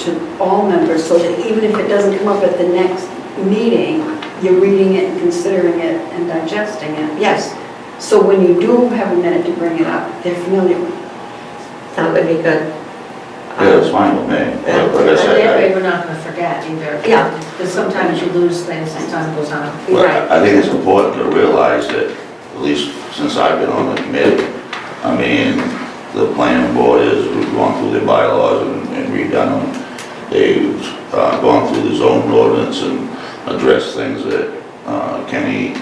to all members, so that even if it doesn't come up at the next meeting, you're reading it and considering it and digesting it, yes. So when you do have a minute to bring it up, they're familiar with it. That would be good. Yeah, it's fine with me, but like I But that way, said, we're not gonna forget either. Yeah. Because sometimes you lose things as time goes on. I- well, I think it's important to realize that, at least since I've been on the committee, I mean, the planning board has gone through their bylaws and and redone them. They've uh, gone through the zone ordinance and addressed things that uh, Kenny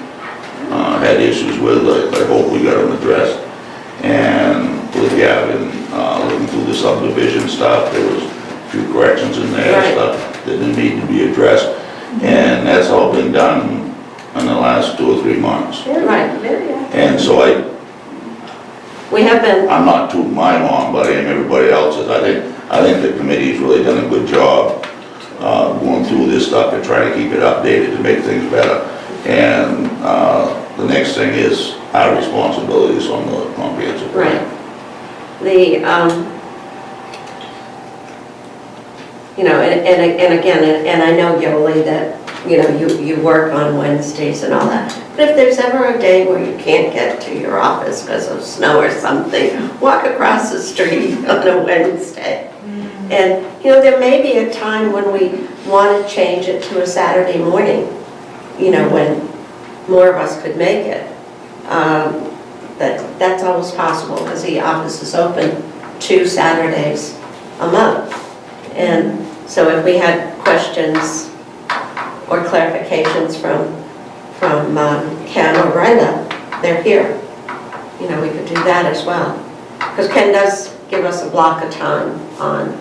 uh, had issues with, I I hope we got them addressed. And with Gavin, uh, looking through the subdivision stuff, there was a few corrections in there, Right. stuff that didn't need to be addressed. And that's all been done in the last two or three months. Right. And so I, We have been, I'm not too mine on, but I am everybody else's. I think, I think the committee's really done a good job uh, going through this stuff and trying to keep it updated to make things better. And uh, the next thing is our responsibilities on the comprehensive plan. right. The, um, you know, and, and and again, and- and I know, Yoli, that, you know, you, you work on Wednesdays and all that. But if there's ever a day where you can't get to your office because of snow or something, walk across the street on a Wednesday. And, you know, there may be a time when we want to change it to a Saturday morning, you know, when more of us could make it. Um, That, that's always possible, because the office is open two Saturdays a month. And so if we had questions or clarifications from, from um, Ken or Brenda, they're here. You know, we could do that as well. Because Ken does give us a block of time on,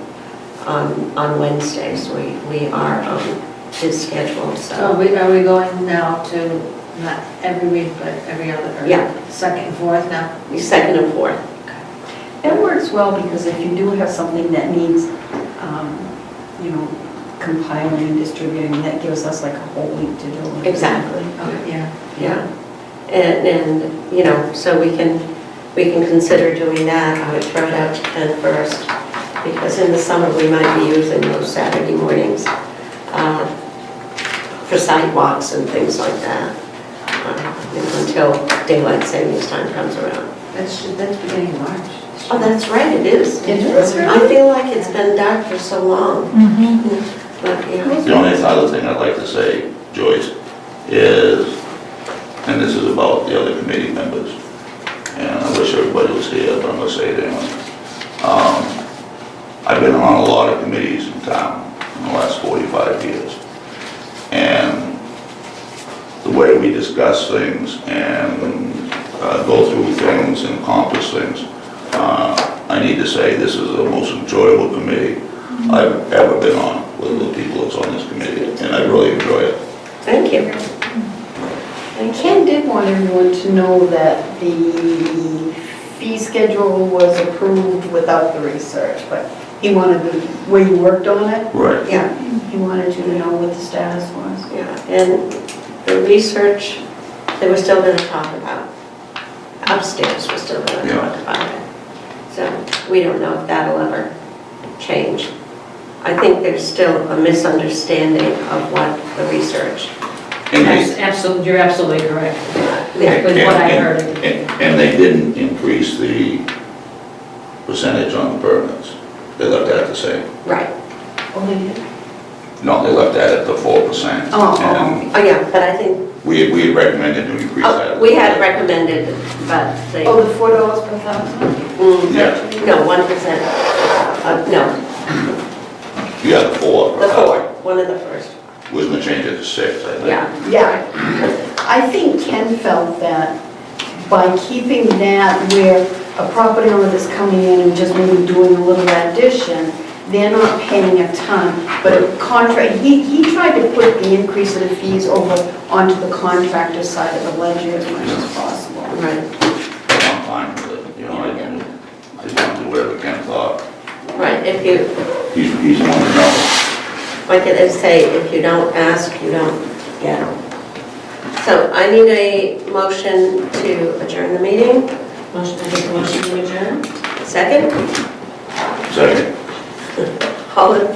on, on Wednesdays. We, we are on his schedule, So we, are we going now to, not every week, but every other? or Yeah. Second, and fourth now? We second and fourth. That works well, because if you do have something that needs, um, you know, compiling and distributing, that gives us like a whole week to do it. Exactly. Okay, yeah. Yeah. And, and, you know, so we can, we can consider doing that. I would throw it out to Ken first, because in the summer, we might be using those Saturday mornings uh, for sidewalks and things like that, uh, you know, until daylight savings time comes around. That's, that's beginning of March. Oh, that's right, it is. It is, right? I feel like it's been dark for so long, Mhm. but, you know, The only other thing I'd like to say, Joyce, is, and this is about the other committee members, and I wish everybody was here, but I'm gonna say it anyway. Um, I've been on a lot of committees in town in the last 45 years. And the way we discuss things and uh, go through things and accomplish things, uh, I need to say, this is the most enjoyable committee I've ever been on with the people that's on this committee, and I really enjoy it. thank you. And Ken did want everyone to know that the fee schedule was approved without the research, but he wanted the, where you worked on it, Right. Yeah. he wanted you to know what the status was. Yeah, and the research that we're still gonna talk about, upstairs, we're still gonna talk about it. So we don't know if that'll ever change. I think there's still a misunderstanding of what the research, And they- absolutely, you're absolutely correct. there, With what I heard. And- And and they didn't increase the percentage on the permits. They left that the same. right. Oh, they did? No, they left that at the four percent. Oh, oh. And Oh, yeah, but I think, we, we had recommended to increase that. oh, we had recommended, but they, Oh, the four dollars per thousand? Mm, Yeah. no, one percent, uh, no, You had the four. the four, one of the first, Wasn't gonna change it to six, I think. yeah. Yeah, I think Ken felt that by keeping that where a property owner that's coming in and just maybe doing a little addition, they're not paying a ton, but contract, he, he tried to put the increase of the fees over onto the contractor side of the ledger as much as possible. Right, I'm fine with it, you know, I, I just wanted to do whatever Ken thought. right, if you, He's, he's the one to know. Like they say, if you don't ask, you don't get. So I need a motion to adjourn the meeting. Motion, I motion to adjourn. Second, Second. all in